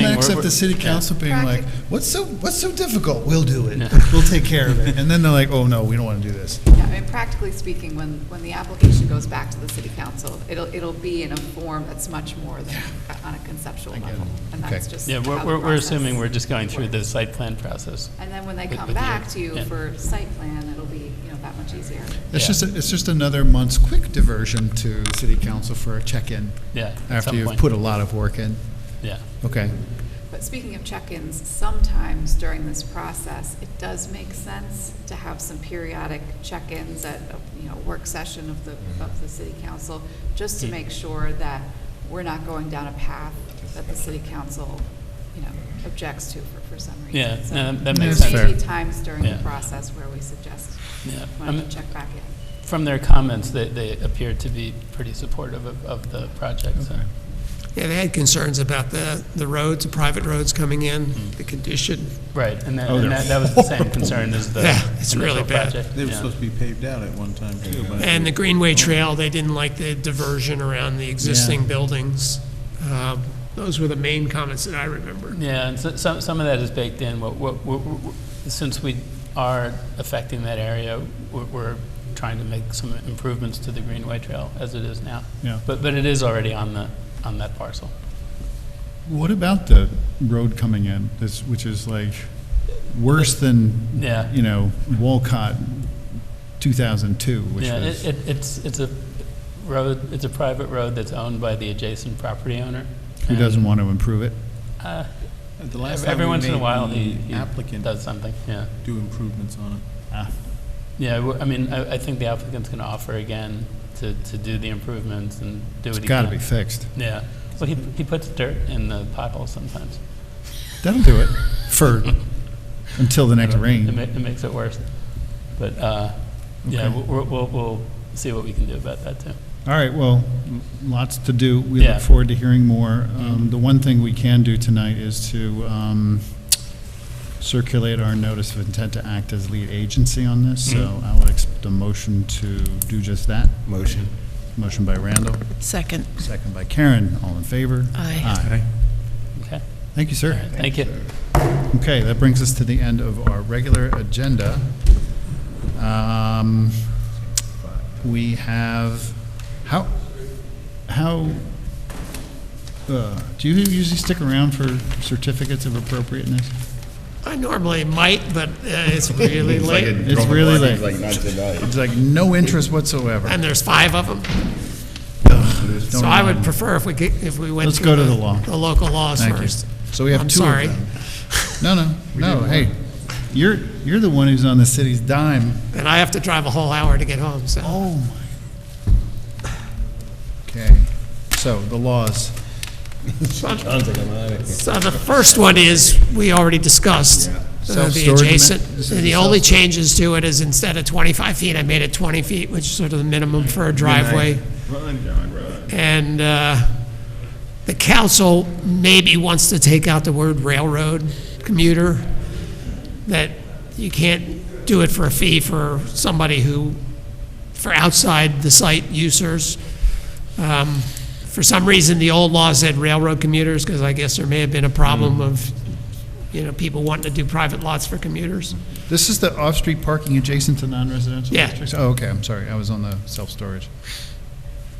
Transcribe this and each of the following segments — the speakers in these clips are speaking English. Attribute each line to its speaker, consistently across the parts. Speaker 1: Except the city council being like, what's so, what's so difficult? We'll do it. We'll take care of it. And then they're like, oh, no, we don't want to do this.
Speaker 2: Yeah, I mean, practically speaking, when, when the application goes back to the city council, it'll, it'll be in a form that's much more than on a conceptual level. And
Speaker 1: Okay.
Speaker 2: that's just
Speaker 3: Yeah,
Speaker 2: how
Speaker 3: we're,
Speaker 2: the
Speaker 3: we're we're
Speaker 2: process
Speaker 3: assuming we're just going through the
Speaker 2: works.
Speaker 3: site plan process.
Speaker 2: And then when they
Speaker 3: with-
Speaker 2: come
Speaker 3: with you.
Speaker 2: back to you
Speaker 3: Yeah.
Speaker 2: for site plan, it'll be, you know, that much easier.
Speaker 1: It's
Speaker 3: Yeah.
Speaker 1: just, a- it's just another month's quick diversion to city council for a check-in.
Speaker 3: Yeah, at
Speaker 1: After
Speaker 3: some
Speaker 1: you've
Speaker 3: point.
Speaker 1: put a lot of work in.
Speaker 3: Yeah.
Speaker 1: Okay.
Speaker 2: But speaking of check-ins, sometimes during this process, it does make sense to have some periodic check-ins at, a, you know, work session of the,
Speaker 3: Mm-hmm.
Speaker 2: of the city council, just
Speaker 3: Hmm.
Speaker 2: to make sure that we're not going down a path that the city council, you know, objects to for, for some reason.
Speaker 3: Yeah,
Speaker 2: So
Speaker 3: no, that- that
Speaker 2: there
Speaker 3: makes
Speaker 2: may
Speaker 1: sense.
Speaker 2: be times during the
Speaker 3: Yeah.
Speaker 2: process where we suggest,
Speaker 3: Yeah.
Speaker 2: wanting
Speaker 3: Um,
Speaker 2: to check back in.
Speaker 3: From their comments, they, they appeared to be pretty supportive of, of the project, so.
Speaker 4: Yeah, they had concerns about the, the roads, the private roads coming in,
Speaker 1: Mm-hmm.
Speaker 4: the condition.
Speaker 3: Right, and that, and that that was the same concern as the
Speaker 4: Yeah, it's
Speaker 3: initial
Speaker 4: really bad.
Speaker 3: project.
Speaker 5: They were
Speaker 3: yeah.
Speaker 5: supposed to be paved out at one time too, but.
Speaker 4: And the Greenway Trail, they didn't like the diversion around the existing buildings. Um, Those were the main comments that I remember.
Speaker 3: Yeah, and so- some, some of that is baked in. What, what, what- what- since we are affecting that area, we're, we're trying to make some improvements to the Greenway Trail as it is now.
Speaker 1: Yeah.
Speaker 3: But, but it is already on the, on that parcel.
Speaker 1: What about the road coming in, this, which is like worse than,
Speaker 3: Yeah.
Speaker 1: you know, Walcott 2002, which
Speaker 3: Yeah, it,
Speaker 1: was,
Speaker 3: it- it's, it's a road, it's a private road that's owned by the adjacent property owner.
Speaker 1: who
Speaker 3: And,
Speaker 1: doesn't want to improve it?
Speaker 3: uh,
Speaker 5: At the last
Speaker 3: ev-
Speaker 5: time
Speaker 3: Every
Speaker 5: we
Speaker 3: once in a
Speaker 5: made
Speaker 3: while,
Speaker 5: the
Speaker 3: he, he
Speaker 5: Applicant
Speaker 3: does something, yeah.
Speaker 5: do improvements on it.
Speaker 1: Ah,
Speaker 3: Yeah, w- I mean, I, I think the applicant's gonna offer again to, to do the improvements and do it
Speaker 1: It's
Speaker 3: again.
Speaker 1: got to be fixed.
Speaker 3: Yeah. Well, he, he puts dirt in the potholes sometimes.
Speaker 1: That'll do it for, until the next
Speaker 3: It, ma-
Speaker 1: rain.
Speaker 3: it makes it worse. But uh, yeah,
Speaker 1: Okay.
Speaker 3: we'll, we'll- we'll, we'll see what we can do about that too.
Speaker 1: All right, well, lots to do. We
Speaker 3: Yeah. Mm-hmm.
Speaker 1: look forward to hearing more. Um, The one thing we can do tonight is to um, circulate our notice of intent to act as lead agency on this, so
Speaker 3: Mm-hmm.
Speaker 1: I would expect a motion to do just that.
Speaker 6: Motion.
Speaker 1: Motion by Randall,
Speaker 7: Second.
Speaker 1: second by Karen. All in favor?
Speaker 7: Aye.
Speaker 3: Okay.
Speaker 1: Thank you, sir.
Speaker 3: Thank you.
Speaker 1: Okay, that brings us to the end of our regular agenda. Um, We have, how, how, uh, do you usually stick around for certificates of appropriateness?
Speaker 4: I normally might, but uh, it's really late,
Speaker 1: It's really late.
Speaker 6: Like not tonight.
Speaker 1: It's like no interest whatsoever.
Speaker 4: and there's five of them. So I would prefer if we, could- if we went
Speaker 1: Let's
Speaker 4: through
Speaker 1: go to the law.
Speaker 4: The local laws
Speaker 1: Thank you.
Speaker 4: first.
Speaker 1: So we have
Speaker 4: I'm
Speaker 1: two of
Speaker 4: sorry.
Speaker 1: them. No, no, no, hey, you're, you're the one who's on the city's dime.
Speaker 4: And I have to drive a whole hour to get home, so.
Speaker 1: Oh my. Okay, so the laws.
Speaker 4: So the first one is, we already discussed, uh, the
Speaker 1: Self-storage
Speaker 4: adjacent.
Speaker 1: ma- this is
Speaker 4: The
Speaker 1: the
Speaker 4: only
Speaker 1: self-
Speaker 4: changes to it is instead of 25 feet, I made it 20 feet, which is sort of the minimum for a driveway. And uh, the council maybe wants to take out the word railroad commuter, that you can't do it for a fee for somebody who, for outside the site users. Um, For some reason, the old law said railroad commuters, because I guess there may have been a problem of, you know, people wanting to do private lots for commuters.
Speaker 1: This is the off-street parking adjacent to non-residential
Speaker 4: Yeah.
Speaker 1: districts? Oh, okay, I'm sorry, I was on the self-storage.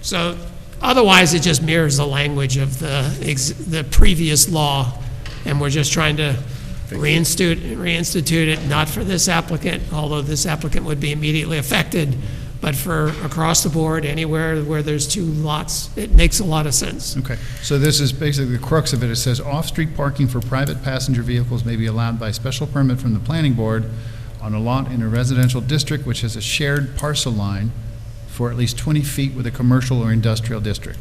Speaker 4: So otherwise, it just mirrors the language of the, ex- the previous law, and we're just trying to reinstitute, reinstitute it, not for this applicant, although this applicant would be immediately affected, but for across the board, anywhere where there's two lots, it makes a lot of sense.
Speaker 1: Okay, so this is basically the crux of it, it says, "Off-street parking for private passenger vehicles may be allowed by special permit from the planning board on a lot in a residential district which has a shared parcel line for at least 20 feet with a commercial or industrial district,"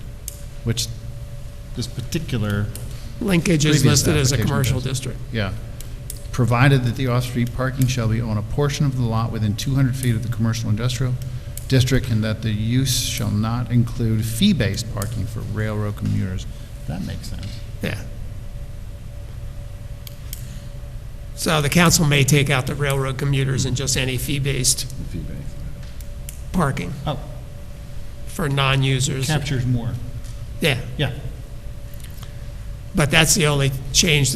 Speaker 1: which this particular,
Speaker 4: Linkage is
Speaker 1: Previous
Speaker 4: listed as a
Speaker 1: application
Speaker 4: commercial
Speaker 1: does.
Speaker 4: district.
Speaker 1: yeah, provided that the off-street parking shall be on a portion of the lot within 200 feet of the commercial industrial district, and that the use shall not include fee-based parking for railroad commuters. That makes sense.
Speaker 4: Yeah. So the council may take out the railroad commuters and just any fee-based parking
Speaker 1: Oh,
Speaker 4: for non-users.
Speaker 1: captures more.
Speaker 4: Yeah,
Speaker 1: Yeah.
Speaker 4: but that's the only change